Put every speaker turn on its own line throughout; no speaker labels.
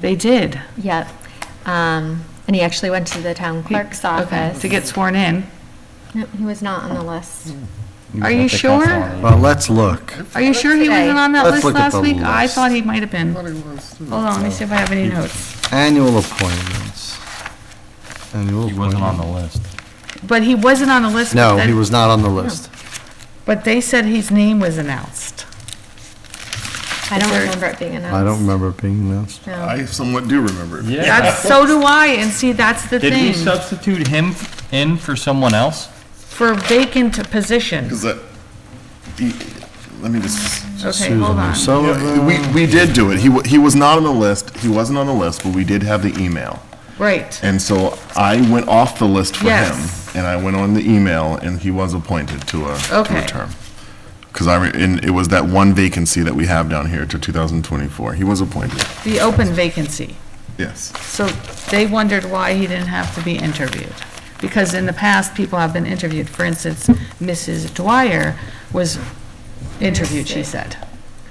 They did.
Yep. Um, And he actually went to the town clerk's office.
To get sworn in.
No, He was not on the list.
Are you sure?
Well, let's look.
Are you sure he
Today.
wasn't on that
Let's
list
look at
last
the
week? I
list.
thought he might have been. Hold
But it was, too.
on, let me see if I have any notes.
Annual appointments. Annual
He wasn't on the
appointments.
list.
But he wasn't on the list. but
No, he
then-
was not on the list.
But they said his name was announced.
I don't
Very-
remember it being announced.
I don't remember it being announced.
No.
I somewhat do remember it.
That's, so do I, and see, that's the
Did we
thing,
substitute him in for someone else?
for vacant position.
Because that, he- let me just,
Okay,
Susan
hold on.
O'Sullivan.
we,
uh,
we did do it. He, wa- he was not on the list. He wasn't on the list, but we did have the email.
Right,
And so I went off the list for him.
Yes.
And I went on the email and he was appointed to a, to
Okay.
a term. Because I, re- and it was that one vacancy that we have down here to 2024. He was appointed.
the open vacancy.
Yes.
So they wondered why he didn't have to be interviewed. Because in the past, people have been interviewed. For instance, Mrs. Dwyer was interviewed, she said.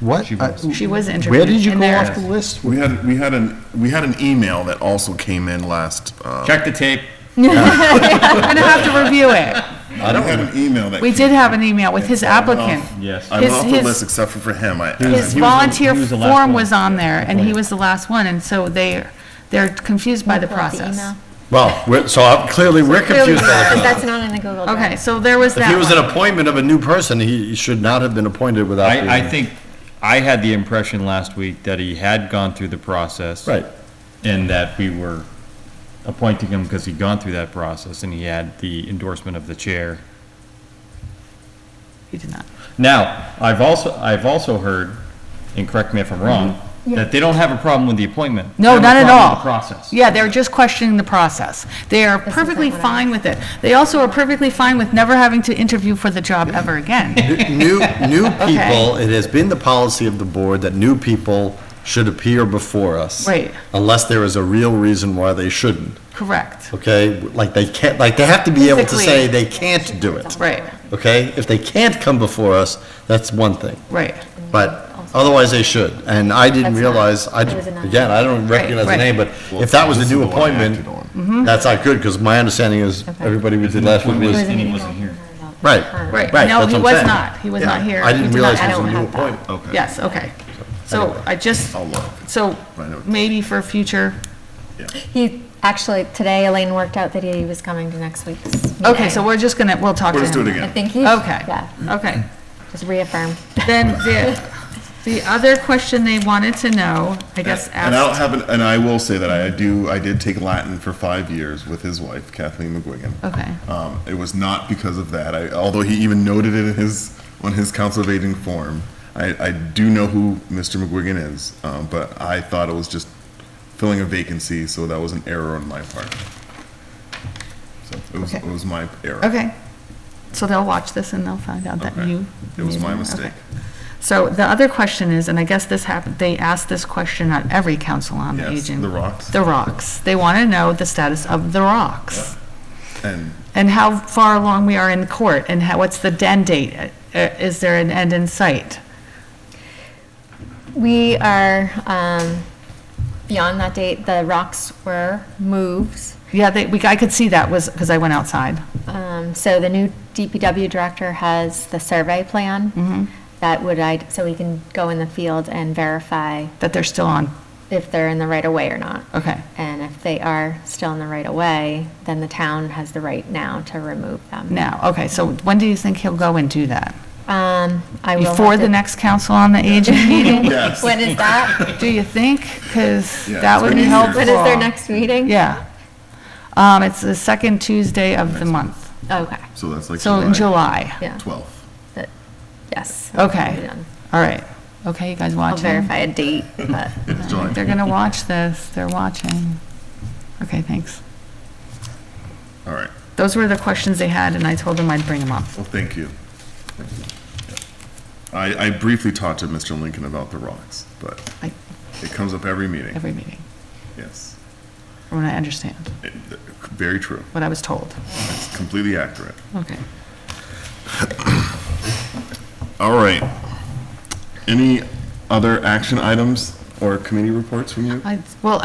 What? I-
She was interviewed.
Where did you
and
go
there-
off the list?
We had, we had an, we had an email that also came in last, uh,
Check the tape.
We're going to have to review it.
we had an email that.
We
came
did have an email with his applicant.
Yes.
I went
His-
off the
his-
list except for for him. I- I-
His
he was the-
volunteer
he was the last
form
one.
was on there, and he was the last one, and so they, they're confused by the
Pull up
process.
email.
Well, we're- so I'm- clearly we're
Clearly,
confused. by
because
that.
That's not in the Google Drive.
Okay, so there was
If
that
he was an
one.
appointment of a new person, he should not have been appointed without. being-
I, I think, I had the impression last week that he had gone through the process.
Right.
And that we were appointing him because he'd gone through that process and he had the endorsement of the chair.
He did not.
Now, I've also, I've also heard, and correct me if I'm wrong, that they don't have a problem with the appointment.
Mm-hmm. No,
They have
not at
a problem
all.
with the Process.
Yeah, they're just questioning the process. They are
not
perfectly
what I-
fine with it. They also are perfectly fine with never having to interview for the job ever again.
New, new people, it has been the policy of the board that new people should appear before us.
Right.
Unless there is a real reason why they shouldn't,
Correct,
okay? Like they can't, like they have to be able to
Physically.
say they can't do it,
right,
okay? If they can't come before us, that's one thing,
right.
but otherwise they should. And I didn't
That's not-
realize, I,
it was a non-
again, I don't recognize the
right.
name, but
Well,
if that was a
this
new
is the one I
appointment,
acted
Mm-hmm.
on.
that's not good, because my understanding is everybody we did last week
It
It
was,
was an
And he
email
wasn't
from
here.
her about
Right,
her.
right.
right,
No,
that's
he
what
was
I'm saying.
not. He was
Yeah,
not here.
I
He
didn't
did
realize
not-
it
I
was a
don't
new
have that.
appointment.
Okay.
Yes, okay. So I just,
I'll look.
so
I know.
maybe for future,
He, actually, today Elaine worked out that he was coming to next week's meeting.
okay, so we're just gonna, we'll talk to
We'll
him.
just do it again.
I think he,
Okay.
yeah,
Okay.
just reaffirm.
Then the, the other question they wanted to know, I guess,
And I don't
asked,
have, an- and I will say that I do, I did take Latin for five years with his wife Kathleen McGuigan.
okay,
Um, it was not because of that, I, although he even noted it in his, on his council of aging form. I, I do know who Mr. McGuigan is, um, but I thought it was just filling a vacancy, so that was an error on my part. So it was, it
Okay.
was my error.
okay. So they'll watch this and they'll find out that
Okay.
you.
It was my
okay.
mistake.
So the other question is, and I guess this happened, they asked this question at every council on
Yes,
aging.
the rocks.
The rocks. They want to know the status of the rocks
And
and how far along we are in court and how, what's the den date? Uh, Is there an end in sight?
We are, um, beyond that date, the rocks were moved.
Yeah, they, we, I could see that was, because I went outside.
Um, so the new DPW director has the survey
Mm-hmm.
plan that would, I, so we can go in the field and verify
That they're still on.
if they're in the right of way or not.
Okay.
And if they are still in the right of way, then the town has the right now to remove them.
Now, okay, so when do you think he'll go and do that?
Um, I will. have
Before the
to-
next council on the aging meeting,
Yes.
When is that?
do you think? Because
Yeah,
that
it's
would
been
be
easier.
helpful.
When is their next meeting?
Yeah. Um, it's the second Tuesday of the month,
Okay,
so that's like
so in July.
yeah,
Twelve.
that- yes. We'll be
Okay,
done.
all right. Okay, you guys
I'll
watching?
verify a date, but
It was July.
They're gonna watch this, they're watching. Okay, thanks.
All right.
Those were the questions they had, and I told them I'd bring them up.
Well, thank you. Thank you. I, I briefly talked to Mr. Lincoln about the rocks, but
Like-
it comes up every meeting,
Every meeting,
yes.
from what I understand,
It- Very true,
what I was told.
it's completely accurate.
Okay.
All right. Any other action items Or committee reports from you?
I, well,